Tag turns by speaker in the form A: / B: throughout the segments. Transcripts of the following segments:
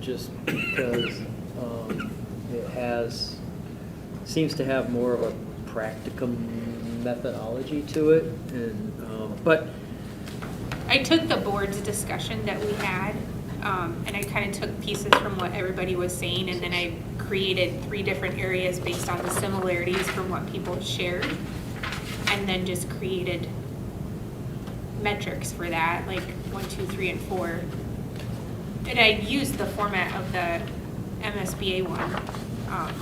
A: just because um, it has, seems to have more of a practicum methodology to it, and, um, but,
B: I took the board's discussion that we had, um, and I kind of took pieces from what everybody was saying, and then I created three different areas based on the similarities from what people shared, and then just created metrics for that, like one, two, three, and four. And I used the format of the MSBA one. um,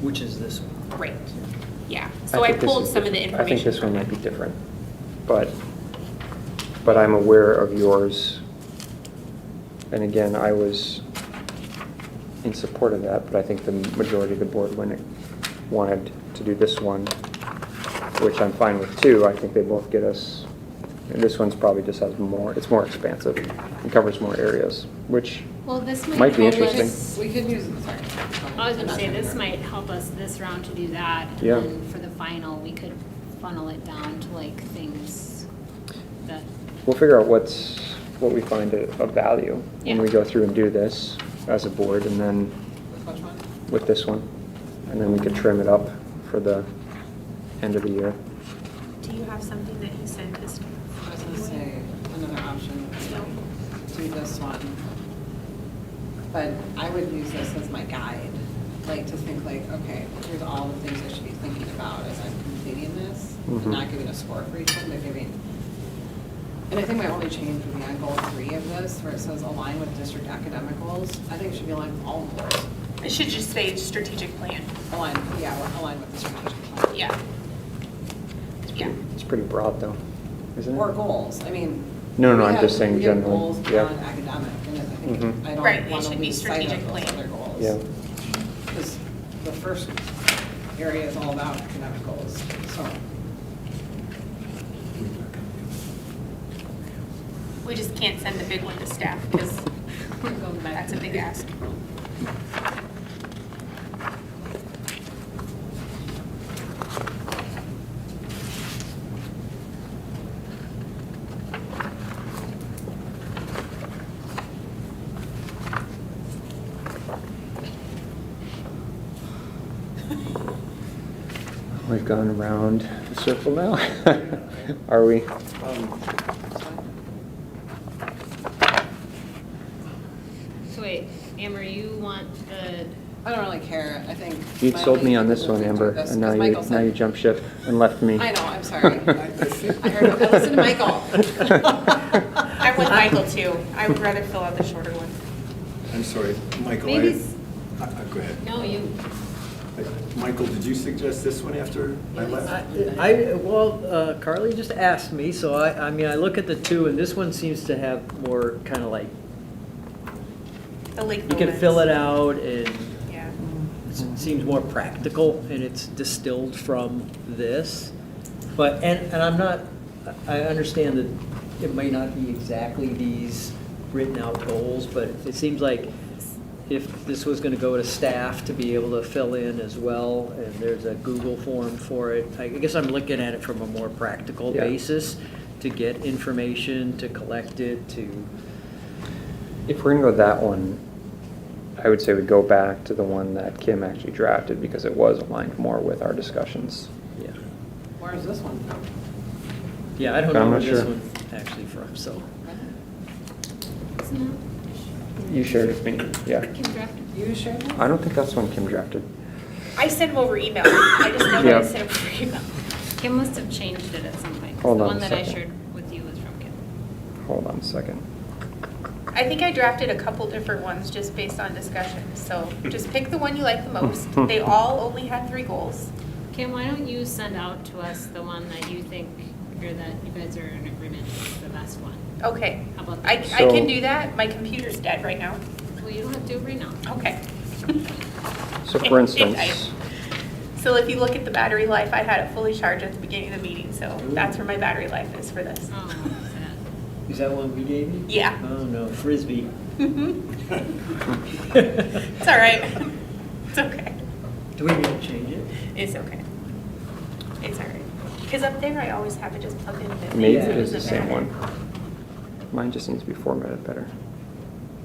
A: which is this one?
B: Right, yeah. So I
C: think this
B: pulled
C: is
B: some of the
C: different.
B: information.
C: I think this one might be different, but, but I'm aware of yours. And again, I was in support of that, but I think the majority of the board when it wanted to do this one, which I'm fine with too. I think they both get us, and this one's probably just has more, it's more expansive and covers more areas, which
D: Well, this might.
C: might be
D: help us-
C: interesting.
E: We could use, sorry.
F: I was gonna say, this might help us this round to do that. and
C: Yeah.
F: then For the final, we could funnel it down to like things that,
C: We'll figure out what's, what we find of of value when we
F: Yeah.
C: go through and do this as a board and then
E: Which one?
C: with this one. And then we could trim it up for the end of the year.
B: Do you have something that you sent us?
E: I was gonna say, another option would be like, do this one. But I would use this as my guide, like to think like, okay, here's all the things I should be thinking about as I'm completing this.
C: Mhm.
E: Not giving a score for each one, but giving. And I think my only change would be on goal three of this, where it says align with district academic goals. I think it should be aligned with all goals.
B: It should just say strategic plan.
E: Align, yeah, align with the strategic plan.
B: Yeah. Yeah.
C: It's pretty broad though, isn't it?
E: Or goals, I mean.
C: No, no,
E: we
C: I'm
E: have-
C: just saying
E: we have
C: generally,
E: goals
C: yeah.
E: beyond academic, and I
C: Mhm.
E: think, I
B: Right, it
E: don't want
B: should
E: to
B: be
E: lose sight
B: strategic
E: of those
B: plan.
E: other goals.
C: Yeah.
E: Because the first area is all about academic goals, so.
B: We just can't send the big one to staff because that's a big ask.
C: We've gone around the circle now. Are we?
F: so wait, Amber, you want the,
E: I don't really care, I think.
C: You
E: my
C: sold
E: only
C: me on
E: thing
C: this
E: is
C: one,
E: to do
C: Amber,
E: this,
C: and now
E: 'cause
C: you,
E: Michael
C: now
E: said-
C: you jump ship and left me.
E: I know, I'm sorry. I heard, I listened to Michael.
B: I'm with Michael too. I would rather fill out the shorter one.
G: I'm sorry, Michael, I,
F: Maybe s-
G: I- I- go ahead.
F: no, you,
G: Michael, did you suggest this one after I left?
A: I, well, uh, Carly just asked me, so I, I mean, I look at the two, and this one seems to have more kind of like,
B: The Lake
A: you can
B: Lowlands.
A: fill it out, and
B: Yeah.
A: it seems more practical, and it's distilled from this. But, and, and I'm not, I understand that it may not be exactly these written out goals, but it seems like if this was gonna go to staff to be able to fill in as well, and there's a Google form for it, I guess I'm looking at it from a more practical
C: Yeah.
A: basis to get information, to collect it, to,
C: If we're gonna go that one, I would say we go back to the one that Kim actually drafted because it was aligned more with our discussions.
A: yeah.
E: Where is this one from?
A: Yeah, I don't
C: I'm
A: know where
C: not
A: this
C: sure.
A: one actually from, so.
F: isn't
C: You shared with me, yeah.
F: that Kim drafted?
E: You shared that?
C: I don't think that's one Kim drafted.
B: I send them over email. I just know that
C: Yeah.
B: I send them over email.
F: Kim must have changed it at some point, 'cause
C: Hold
F: the
C: on a
F: one that I
C: second.
F: shared with you was from Kim.
C: Hold on a second.
B: I think I drafted a couple different ones just based on discussion. So just pick the one you like the most. They all only had three goals.
F: Kim, why don't you send out to us the one that you think, or that you guys are in agreement is the best one?
B: Okay.
F: How about
B: I,
F: that?
B: I can
C: So-
B: do that. My computer's dead right now.
F: Well, you don't have to do it right now.
B: Okay.
C: So for instance,
B: So if you look at the battery life, I had it fully charged at the beginning of the meeting, so that's where my battery life is for this.
F: Oh, sad.
A: Is that one we gave you?
B: Yeah.
A: Oh, no, frisbee.
B: Mhm.
A: Do
B: It's all right. It's okay.
A: we need to change it?
B: It's okay. It's all right. Because up there, I always have it just plugged in.
C: maybe
A: Yeah.
C: it is the
B: Doesn't
C: same
B: matter.
C: one. Mine just needs to be formatted better.